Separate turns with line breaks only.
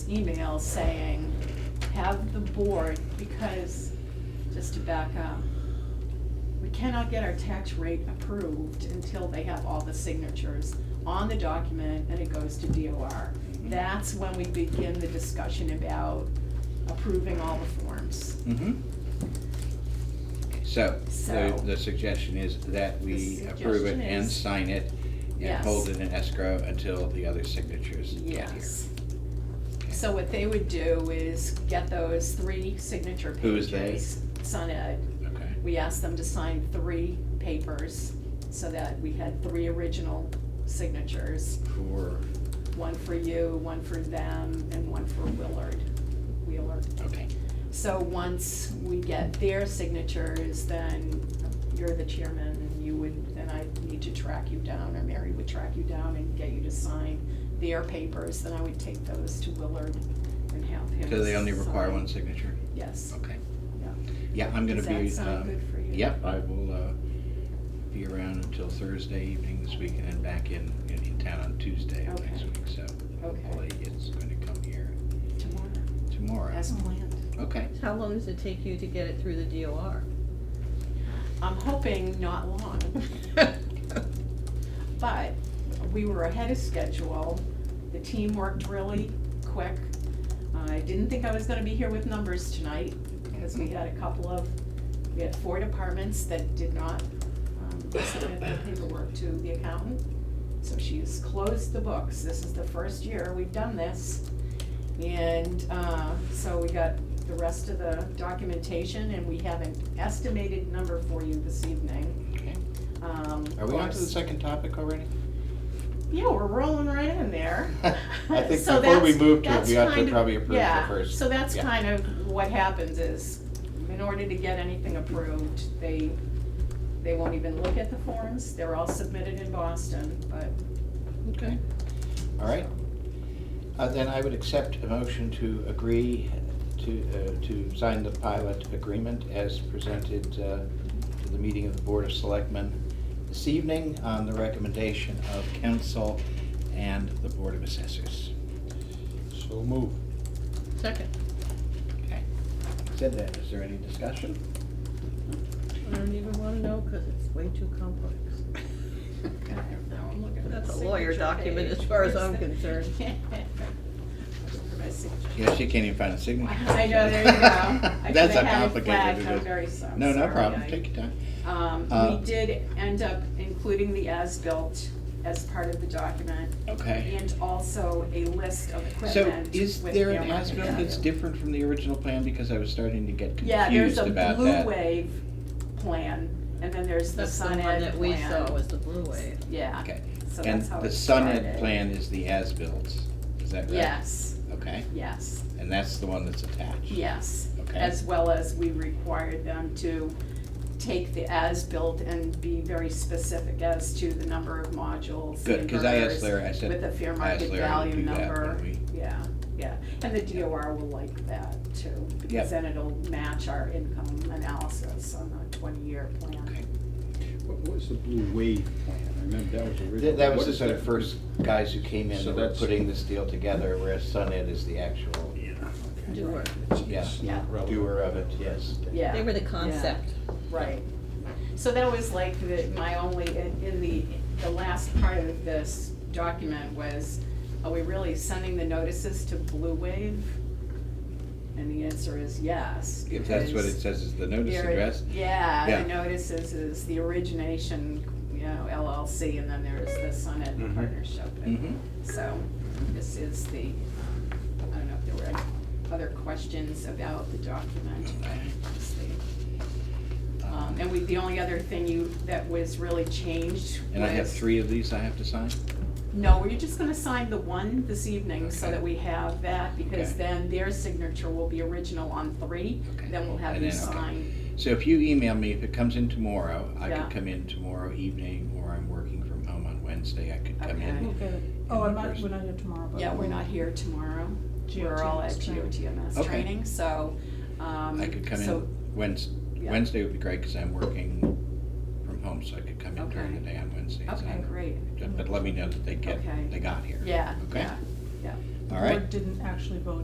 email saying, have the board, because, just to back up, we cannot get our tax rate approved until they have all the signatures on the document and it goes to DOR. That's when we begin the discussion about approving all the forms.
Mm-hmm. So, the,
So-
the suggestion is that we
The
approve it
suggestion
and
is-
sign it and
Yes.
hold it in escrow until the other signatures get here.
Yes. So what they would do is get those three signature pages.
Who is they?
SunEd.
Okay,
We asked them to sign three papers so that we had three original signatures.
for,
One for you, one for them, and one for Willard, Wheeler.
okay,
So once we get their signatures, then you're the chairman and you would, then I need to track you down, or Mary would track you down and get you to sign their papers, then I would take those to Willard and have him.
so they only require
sign.
one signature,
Yes,
okay.
yeah.
Yeah, I'm gonna
Does that
be,
sound
um,
good for you?
yep, I will, uh, be around until Thursday evening this week and then back in, in in town on Tuesday of next
Okay.
week, so
Okay.
hopefully it's gonna come here
Tomorrow,
tomorrow.
as planned.
Okay,
How long does it take you to get it through the DOR?
I'm hoping not long, but we were ahead of schedule. The team worked really quick. I didn't think I was gonna be here with numbers tonight, because we had a couple of, we had four departments that did not um, submit their paperwork to the accountant. So she's closed the books. This is the first year we've done this. And uh, so we got the rest of the documentation, and we have an estimated number for you this evening.
okay.
Um,
Are we on to the
course-
second topic already?
yeah, we're rolling right in there.
I think
So
before we
that's-
move to it,
that's
we ought to
kind of-
probably approve the first-
Yeah, so that's
yeah.
kind of what happens is, in order to get anything approved, they, they won't even look at the forms. They're all submitted in Boston, but
Okay. All right. Uh, Then I would accept a motion to agree to, uh, to sign the pilot agreement as presented uh, to the meeting of the Board of Selectmen this evening on the recommendation of council and the Board of Assessors.
So move.
Second,
Okay. Said that, is there any discussion?
I don't even wanna know, cause it's way too complex.
now I'm looking at the
That's a lawyer
signature
document as
page.
far as
Where's
I'm
the-
concerned.
Looking for my signature.
Yeah, she can't even find a signature.
I know, there you go. I
That's
should
how
have had it
complicated
flagged.
it
I'm
is.
very so-
No, no
sorry.
problem,
I-
take your time.
Um,
Uh,
we did end up including the as-built as part of the document,
Okay.
and also a list of
So
equipment.
is
with
there an
airline
as-built that's
value.
different from the original plan, because I was starting to get
Yeah, there's
confused
a
about
blue
that?
wave plan, and then there's the
That's the
Sun
one
Ed plan.
that we saw was the blue wave.
Yeah,
Okay,
so
and
that's how
the
it
Sun Ed
started.
plan is the as-built, is that right?
Yes,
Okay,
yes,
and that's the one that's attached?
yes.
Okay.
As well as we required them to take the as-built and be very specific as to the number of modules, the
Good, because I asked
inverters,
Larry, I said,
With a fair
I asked
market
Larry to
value
do that
number,
when we,
yeah, yeah, and the DOR will like that too,
Yep.
because then it'll match our income analysis on the twenty-year
okay.
plan.
What was the Blue Wave plan? I remember that was original.
Th- That was
What
the
is
sort
that?
of first guys who came in
So
that were
that's-
putting this deal together, whereas Sun Ed is the actual
Yeah. okay.
Do work.
It's-
Yeah.
it's
Yeah.
not relevant.
doer of it, yes.
Yeah.
They were the concept.
Right. So that was like the, my only, in in the, the last part of this document was, are we really sending the notices to Blue Wave? And the answer is yes.
If that's what it
because
says is the notice
there-
address,
Yeah,
Yeah.
the notices is the origination, you know, LLC, and then there's the Summit
Mm-hmm.
Mhm.
Partnership. And
mhm.
So this is the, um, I don't know if there were any other questions about the document. but it's the- um, And we, the only other thing you, that was really changed was.
And I have three of these I have to sign?
No, we're just gonna sign the one this evening so
Okay.
that we have that, because
Okay.
then their signature will be original on three.
Okay.
Then we'll have
And
you
then, okay.
sign.
So if you email me, if it comes in tomorrow, I
Yeah.
could come in tomorrow evening, or I'm working from home on Wednesday, I could come
Okay.
in.
We'll get it.
the
Oh, I'm not,
first-
we're not here tomorrow, but.
Yeah, we're
we'll-
not here tomorrow. We're all at
GOTMS training.
GOTMS
Okay.
training, so, um.
I could come
so-
in Wednesday,
yeah.
Wednesday would be great, because I'm working from home, so I could come in during the
Okay.
day on Wednesdays.
Okay,
I'm-
great,
But let me know that they get,
Okay.
they got here.
yeah,
Okay.
yeah, yeah.
All
The
right,
board didn't actually vote